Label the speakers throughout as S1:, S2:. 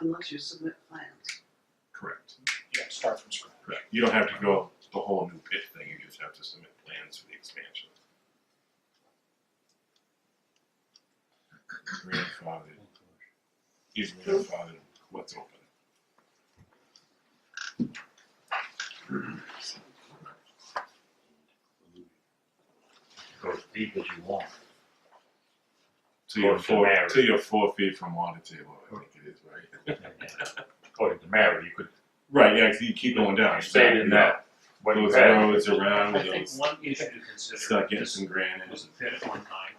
S1: unless you submit plans.
S2: Correct,
S3: You have to start from scratch.
S2: correct. You don't have to go the whole new pit thing, you just have to submit plans for the expansion. Grandfathered, he's grandfathered, what's open?
S4: Go as deep as you want.
S2: To your
S4: Or to
S2: four,
S4: marry.
S2: to your four feet from water table, I think it is, right?
S4: According to Mary, you could
S2: Right, yeah, 'cause you keep going down.
S4: say it in that, what you
S2: Those
S4: had.
S2: roads around,
S5: I think
S2: those
S5: one issue to consider
S2: stuck in
S5: is
S2: some granite.
S5: was a pit at one time,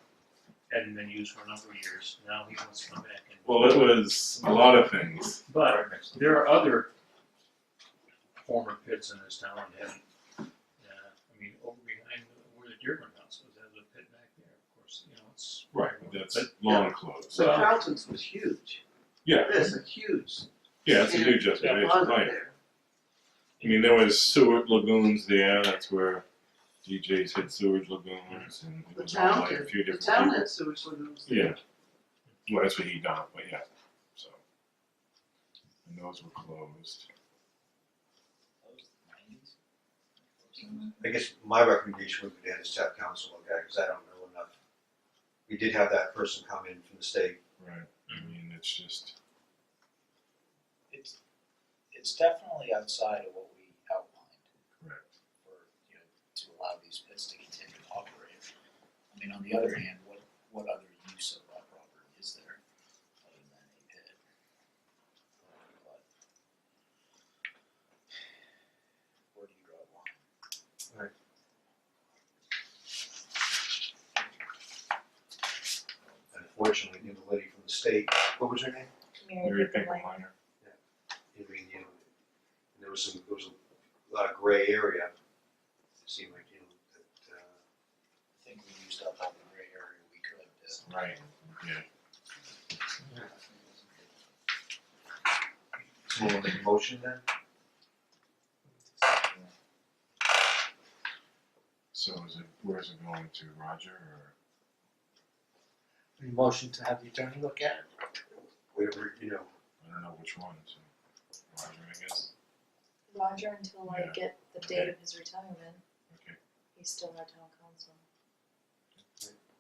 S5: hadn't been used for a number of years, now he wants to come back and.
S2: Well, it was a lot of things,
S5: But there are other former pits in this town that have, uh, I mean, over behind where the Dearborn House was, there's a pit back there, of course, you know, it's.
S2: right, but that's long closed.
S5: So-
S1: So Carlton's was huge.
S2: Yeah,
S1: There's a huge
S2: yeah, it's a huge
S1: that
S2: justification,
S1: was
S2: right.
S1: there.
S2: I mean, there was sewage lagoons there. That's where DJs had sewage lagoons, and it
S1: The
S2: was all
S1: town
S2: like a
S1: did,
S2: few
S1: the
S2: different.
S1: town
S2: people.
S1: had sewage lagoons there.
S2: Yeah. Well, that's what he done, but yeah. So. And those were closed.
S6: I guess my recommendation would be to have this town council look at it, cause I don't know enough. We did have that person come in from the state,
S2: Right. I mean, it's just
S3: It's, it's definitely outside of what we outlined
S2: correct.
S3: for, you know, to allow these pits to continue to operate. I mean, on the other hand, what, what other use of that property is there other than a pit? But Where do you draw the line?
S6: unfortunately, the other lady from the state, what was her name?
S2: Mary Pinkelmeyer.
S6: I mean, you know, and there was some, there was a lot of gray area, it seemed like, you know, that, uh,
S3: I think we used up all the gray area we could, uh,
S2: Right. Yeah.
S6: someone wanna make a motion then?
S2: So is it where is it going to Roger or
S7: Motion to have the attorney look at it?
S6: Whatever, you know,
S2: I don't know which one. So Roger, I guess.
S8: Roger until I
S2: Yeah.
S8: get the date of his retirement,
S2: Okay.
S8: he's still our town council.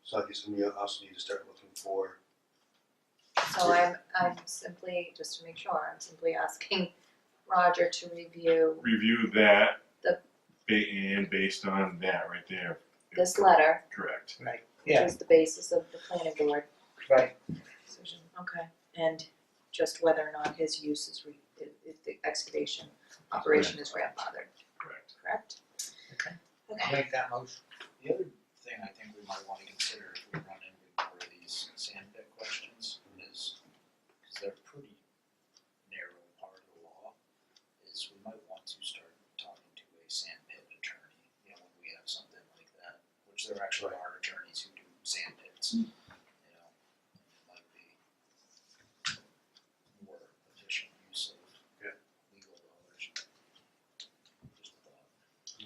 S6: so I guess we also need to start looking for,
S8: So I'm, I'm simply, just to make sure, I'm simply asking Roger to review
S2: Review that.
S8: The-
S2: ba- and based on that right there.
S8: this letter,
S2: Correct.
S8: which is the basis of the planning board
S7: Right.
S8: decision, okay? And just whether or not his use is re, i- if the excavation operation is grandfathered,
S2: Correct.
S8: correct?
S7: Okay. I'll
S8: Okay,
S7: make that motion.
S3: The other thing I think we might wanna consider if we run into more of these sand pit questions is, cause they're pretty narrow part of the law, is we might want to start talking to a sand pit attorney, you know, when we have something like that, which there actually are attorneys who do sand pits, you know, it might be more efficient use of
S6: Yeah.
S3: legal dollars. Just a thought.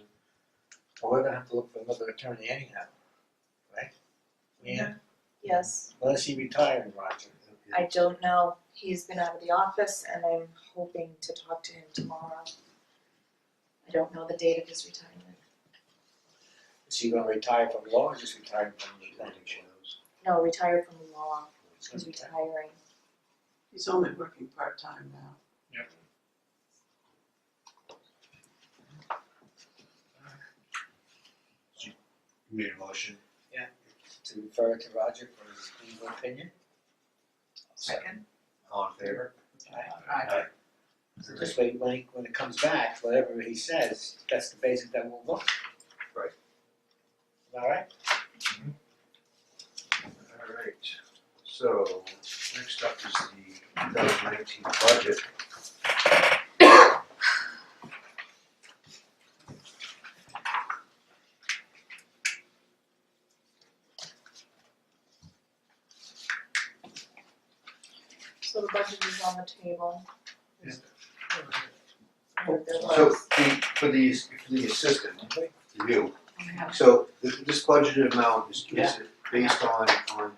S7: Well, we're gonna have to look for another attorney anyhow, right? Yeah,
S8: yes,
S7: unless he retired, Roger.
S6: uh,
S8: I don't know, he's been out of the office and I'm hoping to talk to him tomorrow. I don't know the date of his retirement.
S7: Is he gonna retire from law or just retire from the planning
S8: No, retired from law, he's
S7: board?
S8: retiring.
S1: He's only working part-time now.
S6: you made a motion,
S7: To refer to Roger for his legal opinion?
S3: Second.
S6: all in favor?
S7: So this way, when he, when it comes back, whatever he says, that's the basis that we'll look.
S6: Right.
S7: Alright?
S6: Alright, so next up is the two thousand nineteen budget.
S8: So the budget is on the table.
S6: Yeah.
S8: Or there
S6: So
S8: was.
S6: the, for the, for the assistant, you,
S8: I have
S6: so th- this budgeted amount is, is
S3: Yeah.
S6: based on, on